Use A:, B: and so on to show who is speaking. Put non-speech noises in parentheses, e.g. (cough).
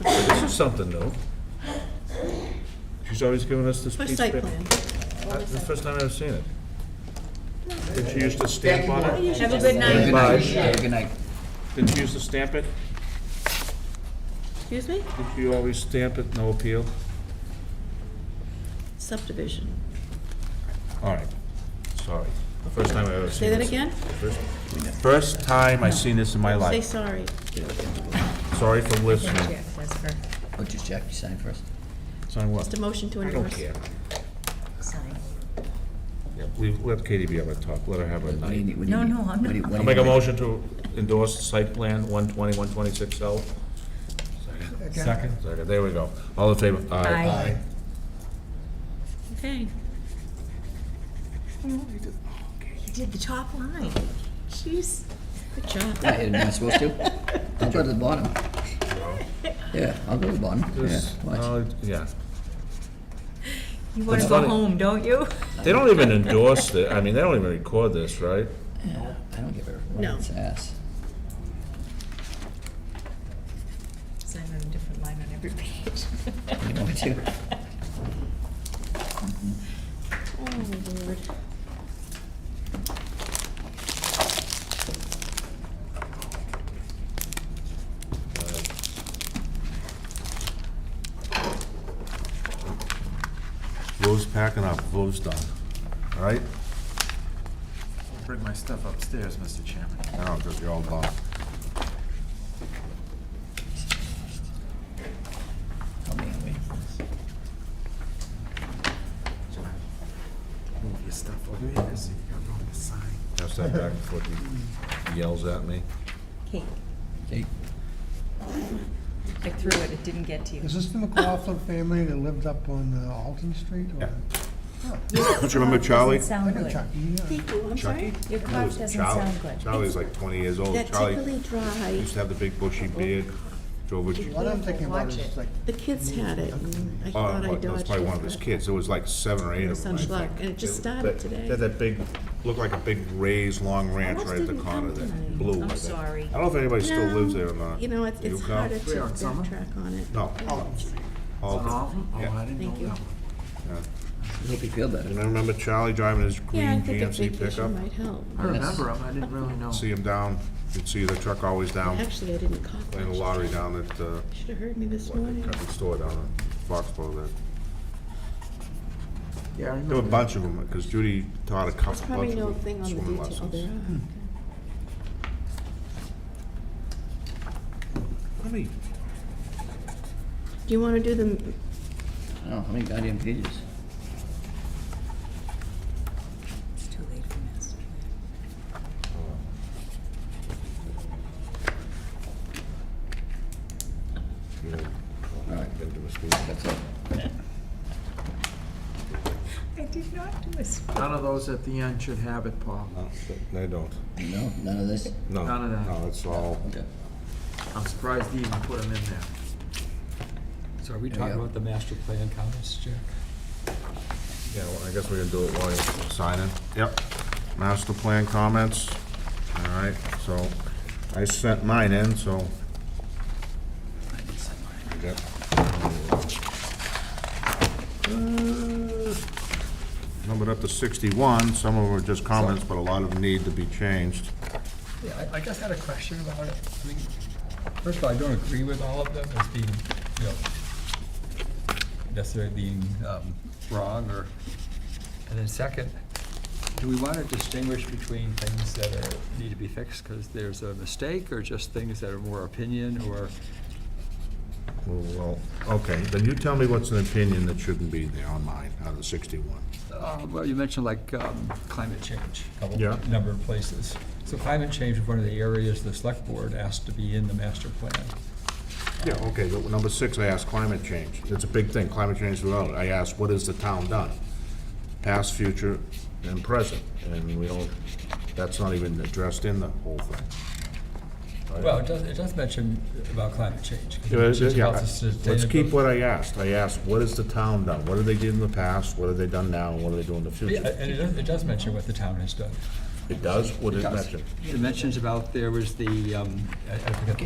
A: This is something new. She's always given us this piece
B: First
A: of
B: site
A: paper.
B: plan.
A: Uh, This is the first time I've seen it. Did she used to
C: Thank
A: stamp
C: you.
A: on it?
C: Maureen.
B: Have a good
C: Have a
B: night.
C: good
A: Bye.
C: night. Have a good night.
A: Did she used to stamp it?
B: Excuse me?
A: Did she always stamp it, no appeal?
B: Subdivision.
A: All right, sorry. The first time I've ever seen
B: Say that
A: this.
B: again?
A: again? First time I've seen this in my
B: Say
A: life.
B: sorry.
A: Sorry for listening.
D: Yes, that's for
C: Oh, just check, you signed first.
A: Sign what?
B: Just a motion to
A: I don't
B: endorse.
A: care.
D: sign.
A: Yeah, we- Let Katie be able to talk, let her have her
C: What do you
A: night.
C: need? What do you
D: No,
C: need?
D: no, I'm
C: What do you-
D: not.
C: what
A: I'll
C: do
A: make a
C: you need?
A: motion to endorse site plan 120, 126 L. Second? Second, there we go. All in favor?
D: Aye.
B: Okay.
D: Oh, You did the top line. Jeez.
B: Good job.
C: Yeah, Am I supposed
D: (laughs)
C: to? I'll go to the bottom. Yeah, I'll go to the bottom. Yeah,
A: This-
C: watch.
A: oh, Yeah.
D: You want
A: That's
D: to go
A: funny.
D: home, don't you?
A: They don't even endorse it, I mean, they don't even record this, right?
C: Yeah, I don't give a
B: No.
C: rat's ass.
D: Sign on a different line on every page.
C: You want me to?
B: Oh, Lord.
A: Uh, Vote's packing up, vote's done, all right?
E: Bring my stuff upstairs, Mr. Chairman.
A: Now, because you're all done.
C: Help me, help me.
E: Move your stuff over here so you can go on the sign.
A: Pass that back before he yells at me.
D: Cake.
C: Okay,
D: I threw it, it didn't get to you.
F: Is this the McLaughlin family that lived up on uh, Alton Street? or-
A: Yeah.
D: Don't
A: you remember Charlie?
F: I
D: Sound
F: know
D: good.
F: Chuck, E. yeah.
B: Thank you, I'm sorry.
D: Your cough doesn't sound good.
A: Charlie's like 20 years old.
B: That
A: Charlie
B: tickly dry,
A: used to have the big bushy beard, drove a...
F: What I'm thinking about
D: Watch
F: is
D: it.
F: like,
B: the kids had it, and I
A: Oh,
B: thought I
A: that was
B: dodged
A: probably one of his
B: it. but-
A: kids. There was like seven or eight of them,
B: Some
A: I
B: schluck,
A: think.
B: and it just started
A: That-
B: today.
A: They had that big, looked like a big raised, long ranch right at the
B: didn't
A: corner
B: come
A: there,
B: tonight.
A: blue. I
D: I'm
A: think.
D: sorry.
A: I don't know if anybody still
B: No,
A: lives there or not.
B: You know, it's,
A: Do you
B: it's
A: count?
B: harder to
E: We're on summer.
B: backtrack on it.
A: No.
E: Alton Street.
A: all
E: On
A: the-
E: all of them? Oh,
A: Yeah.
E: I didn't
B: Thank you.
E: know that one.
C: I hope you feel better.
A: And I remember Charlie driving his
B: Yeah, I
A: green
B: think a
A: GMC pickup.
B: vacation might help.
E: I
C: Yes.
E: remember them, I didn't really know.
A: See him down, you'd see the truck always down,
B: Actually, I didn't cough.
A: playing the lottery down at, uh,
B: Should've heard me this
A: like a
B: morning.
A: couple store down in Foxborough there. There were
E: Yeah, I
A: a
E: remember.
A: bunch of them, because Judy taught a couple, bunch
B: Probably
A: of
B: no
A: them
B: thing on the
A: swimming
B: detail. Oh, there
A: lessons.
B: are.
A: How many,
B: Do you wanna do the
C: I don't know, how many goddamn pages?
D: It's too late for master plan.
A: uh, you know,
C: All right,
A: been to a school?
C: that's
D: (laughs)
C: it.
D: I did not do a spot.
E: None of those at the end should have it, Paul.
A: No, they don't.
C: No, none of this?
A: No,
E: None of that.
A: no, it's all,
C: Okay.
E: I'm surprised he even put them in there.
G: So are we
C: There you
G: talking
C: go.
G: about the master plan comments, Jack?
A: yeah, well, I guess we're gonna do it while you're signing. Yep. Master plan comments, all right, so I sent mine in, so. I did Uh, Numbered up to sixty-one, some of them are just comments, but a lot of them need to be changed.
G: Yeah, I, I just had a question about it. I mean, first of all, I don't agree with all of them as being, you know, necessarily being, um, wrong or, and then second, do we want to distinguish between things that are, need to be fixed because there's a mistake or just things that are more opinion or,
A: Well, okay, then you tell me what's an opinion that shouldn't be there on mine, out of the sixty-one.
G: uh, well, you mentioned like, um, climate change, a couple,
A: Yeah.
G: number of places. So climate change is one of the areas the select board asked to be in the master plan.
A: Yeah, okay, but number six, I asked climate change. It's a big thing, climate change throughout. I asked, what has the town done? Past, future, and present, and we don't, that's not even addressed in the whole thing.
G: Well, it does, it does mention about climate change. 'cause it mentions about the
A: Let's keep
G: sustainability.
A: what I asked. I asked, what has the town done? What have they did in the past? What have they done now? And what are they doing in the
G: Yeah,
A: future?
G: And it does, it does mention what the town has done.
A: It does, what
G: It
A: it
G: does.
A: mentioned.
G: It mentions about there was the, um, I I forget the